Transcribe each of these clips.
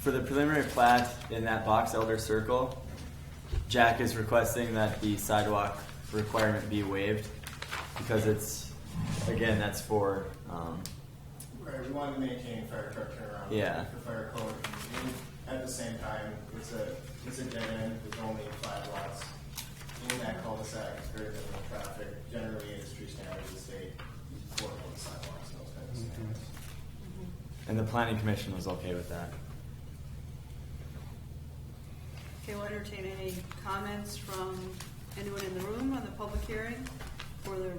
for the preliminary plat in that box elder circle, Jack is requesting that the sidewalk requirement be waived because it's, again, that's for, um, Right, we wanted to maintain fire truck turnaround. Yeah. The fire code, and at the same time, it's a, it's a dead end, there's only five lots in that cul-de-sac, it's very minimal traffic, generally industry standards, the state, four on the sidewalks, and those kinds of standards. and the planning commission was okay with that. Okay, we'll entertain any comments from anyone in the room on the public hearing for the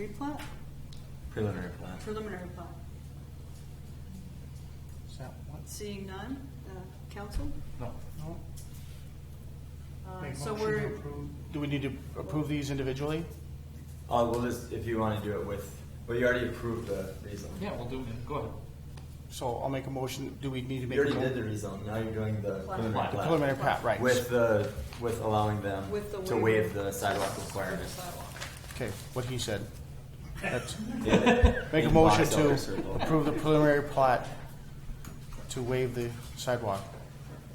replat, Preliminary plat. preliminary plat. Is that one? Seeing none, uh, council? No. No. Uh, Make So motion to we're, approve. Do we need to approve these individually? Oh, well, this, if you wanna do it with, well, you already approved the rezone. Yeah, we'll do it. Go ahead. So I'll make a motion, do we need to You make? a already mo- did the rezone, now you're doing the Plat. preliminary Plat. plat. Preliminary plat, right. With the, with allowing them with the waiver. to waive the sidewalk requirement. Sidewalk. Okay, what he said. That's- Yeah. Make a In motion box elder to circle. approve the preliminary plat to waive the sidewalk.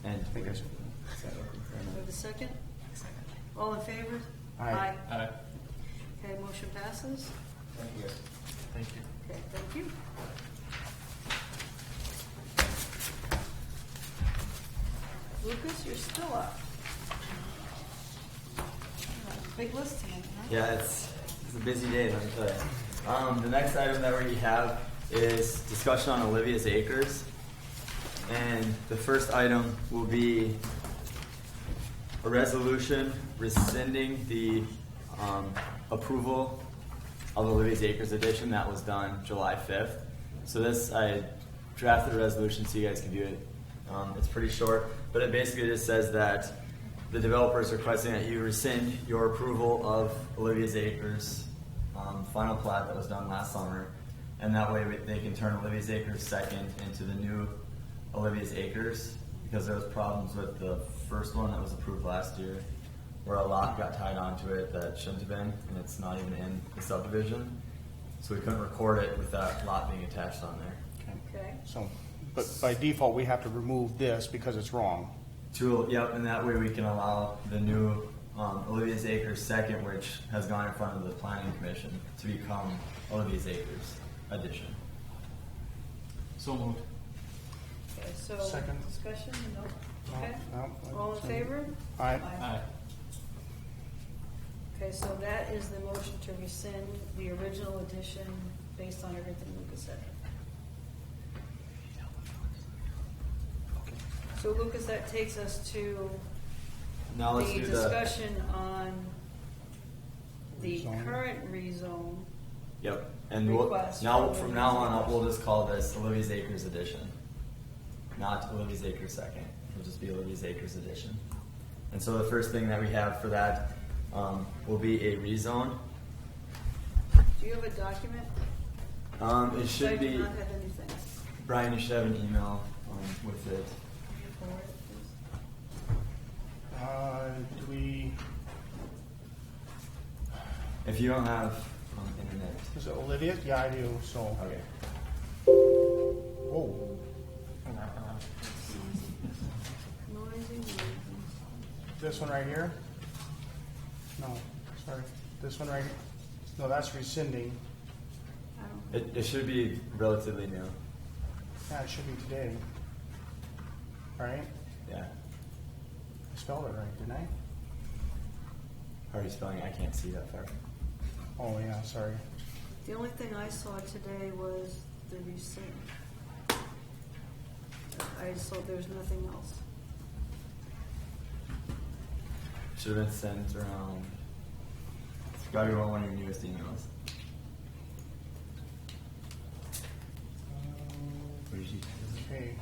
And I think I waive said- Do we have a second? All in favor? Aye. Aye. Okay, motion passes. Thank you guys. Thank you. Okay, thank you. Lucas, you're still up. Big list tonight, huh? Yeah, it's, it's a busy day, let me tell you. Um, the next item that we have is discussion on Olivia's Acres. And the first item will be a resolution rescinding the, um, approval of Olivia's Acres edition that was done July fifth. So this, I drafted a resolution so you guys can view it. Um, it's pretty short, but it basically just says that the developer is requesting that you rescind your approval of Olivia's Acres, um, final plat that was done last summer. And that way we- they can turn Olivia's Acres second into the new Olivia's Acres because there was problems with the first one that was approved last year where a lot got tied onto it that shouldn't have been and it's not even in the subdivision. So we couldn't record it with that lot being attached on there. Okay, So, but by default, we have to remove this because it's wrong. To, yep, and that way we can allow the new um, Olivia's Acres second, which has gone in front of the planning commission to become Olivia's Acres addition. So moved. okay, so Second. discussion, no? No, Okay. no, All in so- favor? Aye. Aye. Okay, so that is the motion to rescind the original edition based on everything Lucas said. So Lucas, that takes us to Now let's the do the, discussion on the Rezone. current rezone. yep, and we'll, Request now, for from now on, Olivia's up, we'll just call this Olivia's Acres addition. Not Olivia's Acres second, it'll just be Olivia's Acres addition. And so the first thing that we have for that um, will be a rezone. Do you have a document? Um, It should I do be, not have anything. Brian, you should have an email um, with it. Can you forward it, Uh, do we, If you don't have um, internet, is it Olivia? Yeah, I do, so, okay. whoa. please? Noisy, noisy. This one right here? No, sorry, this one right, here. no, that's rescinding. I don't- It, it should be relatively new. Yeah, it should be today. Right? Yeah. I spelled it right, didn't I? How are you spelling it? I can't see that far. Oh, yeah, sorry. The only thing I saw today was the rescind. I saw, there's nothing else. Should have been sent around. It's probably one of your newest emails. What did you Okay,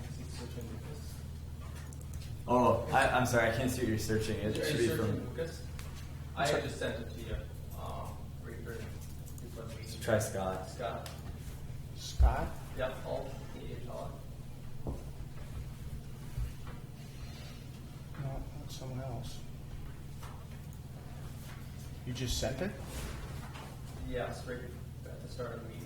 Oh, I, I'm sorry. I can't see what you're searching. It should be from. Lucas? I had just sent it to you, um, refer, so Try Scott. Scott, Scott? yep, all, the, uh, No, that's someone else. You just sent it? yes, right at the start of the meeting.